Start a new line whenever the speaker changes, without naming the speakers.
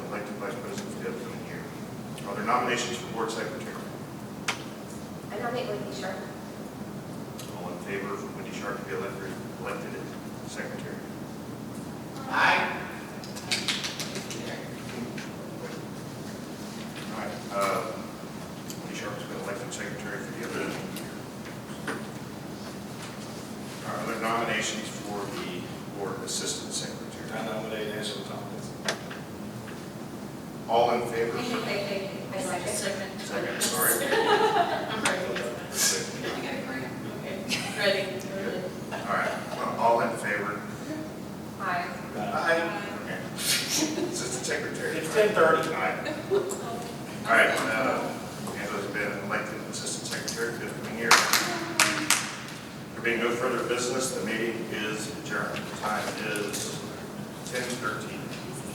nominations for board secretary?
I nominate Wendy Sharp.
All in favor of Wendy Sharp to be elected, elected as secretary?
Aye.
All right, uh, Wendy Sharp's been elected secretary for the other year. All right, other nominations for the board assistant secretary?
I nominate Angela Thomas.
All in favor?
Thank you, thank you. I
Second.
second.
Second, sorry.
I'm ready.
Second.
Okay, ready.
All right, well, all in favor?
Aye.
Aye.
Okay. Assistant secretary?
It's 10:30.
Aye. All right, uh, Angela's been elected assistant secretary for the coming year. There being no further business, the meeting is adjourned. The Time is ten thirteen.